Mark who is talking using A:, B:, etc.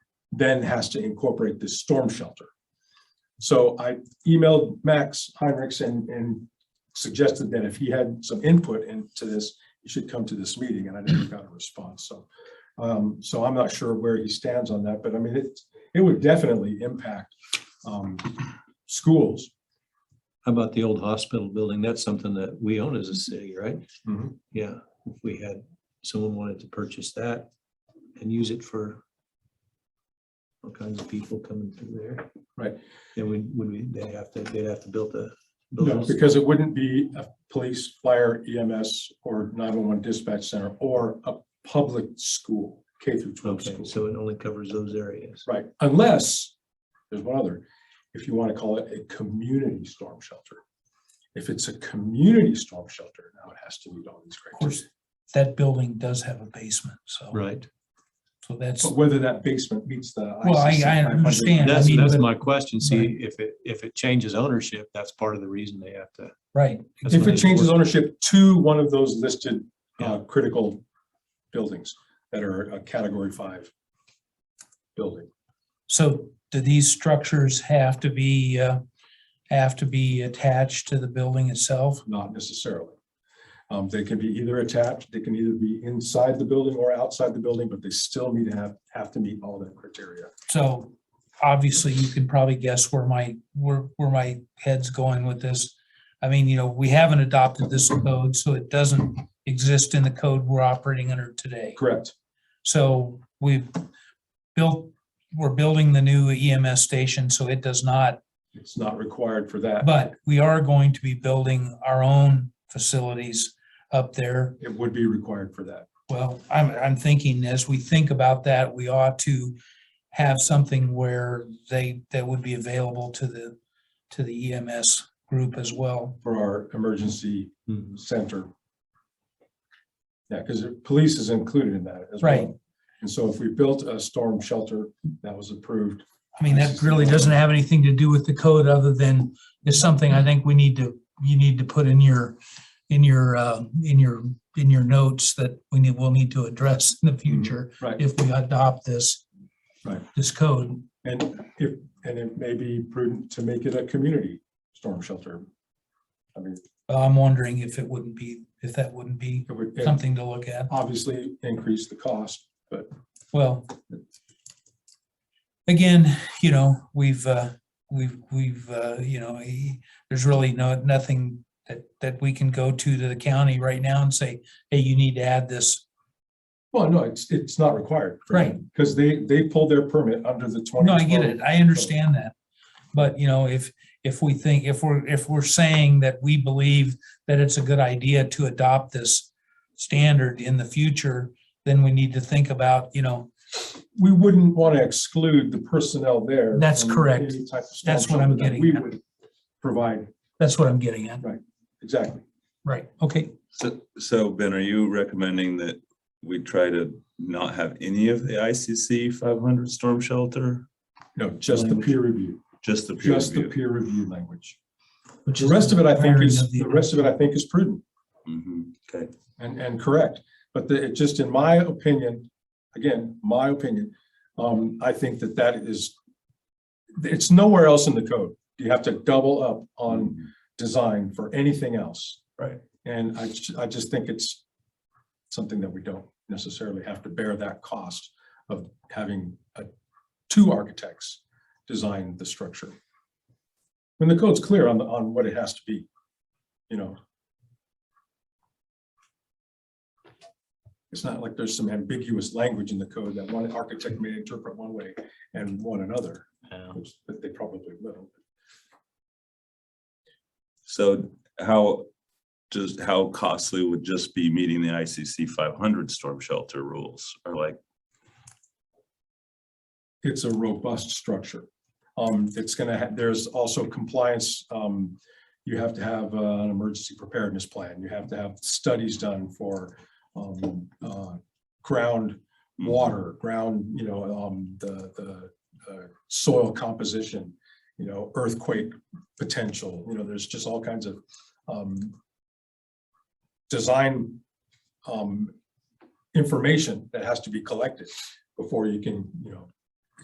A: then has to incorporate this storm shelter. So I emailed Max Heinrichs and, and suggested that if he had some input into this, he should come to this meeting, and I never got a response, so. Um, so I'm not sure where he stands on that, but I mean, it, it would definitely impact, um, schools.
B: How about the old hospital building? That's something that we own as a city, right?
A: Mhm.
B: Yeah, if we had, someone wanted to purchase that and use it for all kinds of people coming through there.
A: Right.
B: Then we, would we, they'd have to, they'd have to build a.
A: No, because it wouldn't be a police, fire, EMS, or nine-one-one dispatch center, or a public school, K through twelve
B: Okay,
A: school.
B: so it only covers those areas.
A: Right, unless, there's one other, if you want to call it a community storm shelter. If it's a community storm shelter, now it has to meet all these
C: Of
A: criteria.
C: course, that building does have a basement, so,
B: Right.
C: so that's,
A: But whether that basement meets the.
C: Well, I-
A: ICC
C: I
A: 500
C: understand.
B: That's,
C: mean,
B: that's
C: but-
B: my question. See,
C: Right.
B: if it, if it changes ownership, that's part of the reason they have to.
C: right,
B: that's
A: If
B: when
A: it
B: they
A: changes
B: work-
A: ownership to one of those listed uh,
B: Yeah.
A: critical buildings that are a category five building.
C: so do these structures have to be, uh, have to be attached to the building itself?
A: Not necessarily. Um, they can be either attached, they can either be inside the building or outside the building, but they still need to have, have to meet all that criteria.
C: So obviously you can probably guess where my, where, where my head's going with this. I mean, you know, we haven't adopted this code, so it doesn't exist in the code we're operating under today.
A: Correct,
C: So we've built, we're building the new EMS station, so it does not
A: it's not required for that.
C: But we are going to be building our own facilities up there.
A: It would be required for that.
C: Well, I'm, I'm thinking as we think about that, we ought to have something where they, that would be available to the, to the EMS group as well.
A: for our emergency
B: Mhm.
A: center. Yeah, because police is included in that as well.
C: Right.
A: And so if we built a storm shelter that was approved,
C: I mean, that really doesn't have anything to do with the code other than it's something I think we need to, you need to put in your, in your, uh, in your, in your notes that we need, we'll need to address in the future
A: Mm-hmm. right,
C: if we adopt this.
A: Right.
C: This code.
A: and if, and it may be prudent to make it a community storm shelter. I mean,
C: I'm wondering if it wouldn't be, if that wouldn't be
A: it would it
C: something to look at.
A: obviously increase the cost, but
C: Well, again, you know, we've, uh, we've, we've, uh, you know, eh, there's really no, nothing that, that we can go to to the county right now and say, hey, you need to add this.
A: well, no, it's, it's not required. Because they, they pulled their permit under the twenty.
C: No, I get it. I understand that. But, you know, if, if we think, if we're, if we're saying that we believe that it's a good idea to adopt this standard in the future, then we need to think about, you know,
A: we wouldn't want to exclude the personnel there.
C: That's
A: from
C: correct.
A: any type of storm
C: That's what I'm
A: shelter that
C: getting
A: We
C: at.
A: would provide,
C: that's what I'm getting at.
A: exactly.
C: Right, okay.
D: So, so Ben, are you recommending that we try to not have any of the ICC five hundred storm shelter?
A: No, just the
D: Language.
A: peer review,
D: Just the peer
A: just the
D: review?
A: peer review language.
C: Which
A: The rest of it, I think,
C: requiring
A: is,
C: of the-
A: the rest of it, I think, is prudent
D: Mhm, Okay,
A: and, and correct. But the, it just, in my opinion, again, my opinion, um, I think that that is, it's nowhere else in the code. You have to double up on
D: on,
A: design for anything else.
B: Right.
A: And I, ju- I just think it's something that we don't necessarily have to bear that cost of having uh, two architects design the structure. When the code's clear on, the on what it has to be, you know. It's not like there's some ambiguous language in the code that one architect may interpret one way and one another,
B: Yeah.
A: which that they probably will.
D: so how, just how costly would just be meeting the ICC five hundred storm shelter rules or like,
A: it's a robust structure. Um, it's gonna have, there's also compliance, um, you have to have uh, an emergency preparedness plan, you have to have studies done for, um, uh, ground water, ground, you know, um, the, the, uh, soil composition, you know, earthquake potential, you know, there's just all kinds of, um, design, um, information that has to be collected before you can, you know,